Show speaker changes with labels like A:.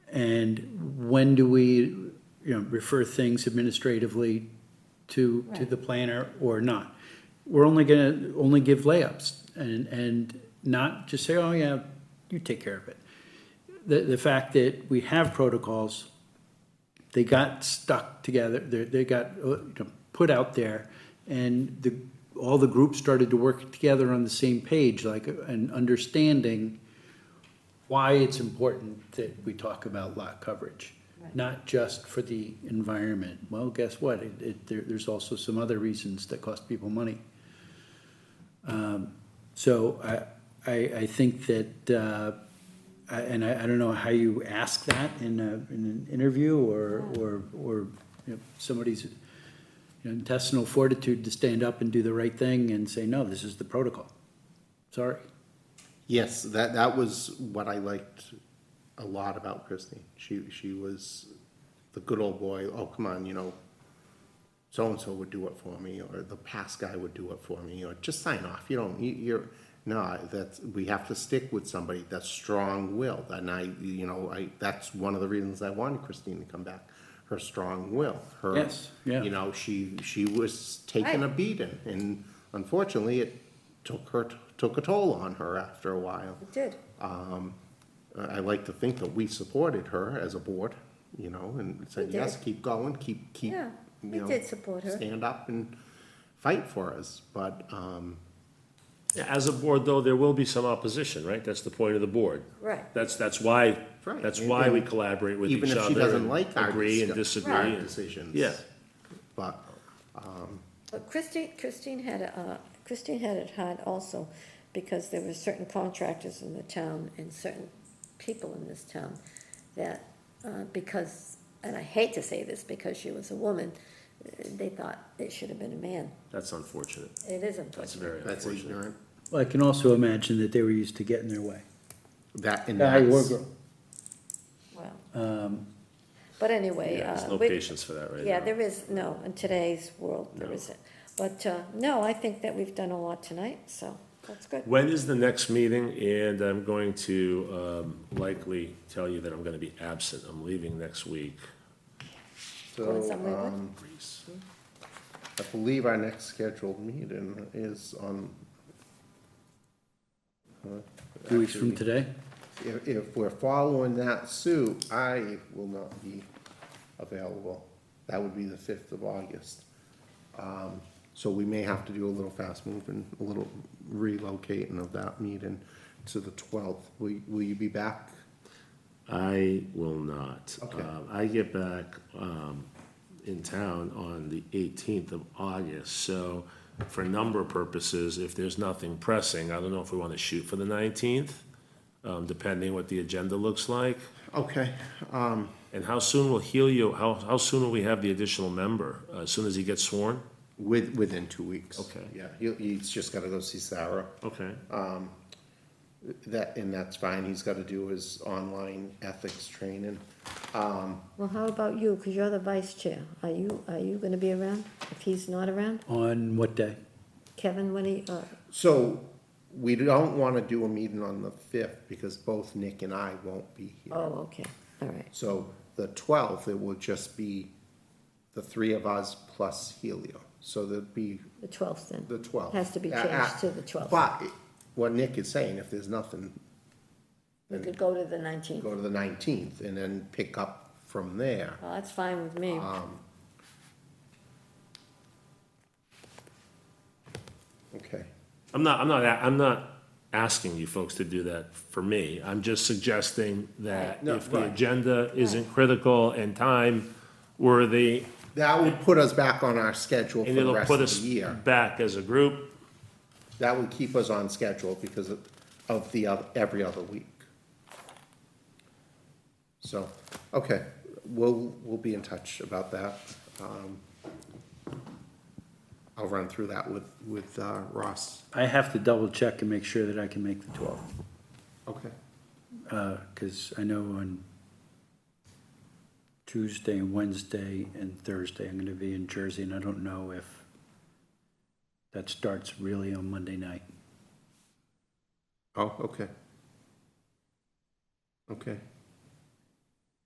A: And when do we, you know, refer things administratively to, to the planner or not? We're only gonna, only give layups and, and not just say, oh yeah, you take care of it. The, the fact that we have protocols they got stuck together, they, they got, uh, you know, put out there, and the, all the groups started to work together on the same page, like, uh, and understanding why it's important that we talk about lot coverage, not just for the environment. Well, guess what, it, it, there, there's also some other reasons that cost people money. Um, So I, I, I think that, uh, I- and I, I don't know how you ask that in a, in an interview or, or, or you know, somebody's you know, intestinal fortitude to stand up and do the right thing and say, no, this is the protocol. Sorry.
B: Yes, that, that was what I liked a lot about Christine. She, she was the good old boy, oh, come on, you know, so-and-so would do it for me, or the past guy would do it for me, or just sign off, you don't, you- you're, no, that's, we have to stick with somebody that's strong-willed, and I, you know, I, that's one of the reasons I wanted Christine to come back, her strong will, her.
A: Yes, yeah.
B: You know, she, she was taking a
C: Right.
B: beating, and unfortunately, it took her, took a toll on her after a while.
C: It did.
B: I I like to think that we supported her as a board, you know, and said,
C: We
B: yes,
C: did.
B: keep going, keep, keep.
C: Yeah,
B: you
C: we
B: know,
C: did support her.
B: Stand up and fight for us, but, um,
D: Yeah, As a board, though, there will be some opposition, right? That's the point of the board.
C: Right.
D: That's, that's why,
B: Right.
D: that's why we collaborate with each
B: even
D: other.
B: if she doesn't
D: and
B: like our
D: Agree and
B: discuss-
D: disagree.
B: our
D: and-
B: Decisions.
D: Yeah.
B: But,
C: But Christine, Christine had, uh, Christine had it hard also, because there were certain contractors in the town and certain people in this town that, uh, because, and I hate to say this because she was a woman, uh, they thought it should have been a man.
D: That's unfortunate.
C: It is
D: That's
C: unfortunate.
D: very
B: that's
D: unfortunate.
B: ignorant,
A: Well, I can also imagine that they were used to getting their way.
B: that, and
A: Guy or
B: that's,
A: girl.
C: Wow. But anyway,
D: Um, Yeah,
C: uh,
D: There's no
C: we-
D: patience for that right now.
C: Yeah, there is, no, in today's world, there
D: No.
C: isn't. But, uh, no, I think that we've done a lot tonight, so that's good.
D: When is the next meeting? And I'm going to um, likely tell you that I'm going to be absent. I'm leaving next week.
C: Going
B: so,
C: somewhere good?
B: um, I believe our next scheduled meeting is on.
A: Two weeks from
B: Actually,
A: today,
B: If, if we're following that suit, I will not be available. That would be the fifth of August. Um, So we may have to do a little fast moving, a little relocating of that meeting to the twelfth. Will, will you be back?
D: I will not.
B: Okay.
D: Um, I get back um, in town on the 18th of August, so for number purposes, if there's nothing pressing, I don't know if we want to shoot for the 19th, um, depending what the agenda looks like.
B: Okay, um,
D: And how soon will Helio, how, how soon will we have the additional member? Uh, As soon as he gets sworn?
B: with, within two weeks.
D: Okay.
B: Yeah, he, he's just gotta go see Sarah.
D: Okay.
B: That, and that's fine. He's gotta do his online ethics training. Um,
C: Well, how about you, because you're the vice chair, are you, are you gonna be around, if he's not around?
A: on what day?
C: Kevin, when he, uh,
B: So we don't wanna do a meeting on the fifth because both Nick and I won't be here.
C: oh, okay, all right,
B: So the twelfth, it will just be the three of us plus Helio. So there'd be
C: the twelfth then.
B: the twelfth.
C: Has to be changed to the twelfth.
B: But what Nick is saying, if there's nothing,
C: We could go to the nineteenth,
B: go to the nineteenth and then pick up from there.
C: well, Oh, that's fine with me,
B: Okay.
D: I'm not, I'm not, a- I'm not asking you folks to do that for me. I'm just suggesting that
B: No,
D: if the
B: right.
D: agenda isn't critical and time worthy,
B: That would put us back on our schedule for
D: and
B: the
D: it'll
B: rest
D: put
B: of
D: us
B: the year.
D: back as a group.
B: That would keep us on schedule because of, of the other, every other week. So, okay, we'll, we'll be in touch about that. Um, I'll run through that with, with uh, Ross.
A: I have to double check and make sure that I can make the twelfth,
B: Okay.
A: uh, cause I know on Tuesday and Wednesday and Thursday, I'm gonna be in Jersey, and I don't know if that starts really on Monday night.
B: Oh, okay. Okay,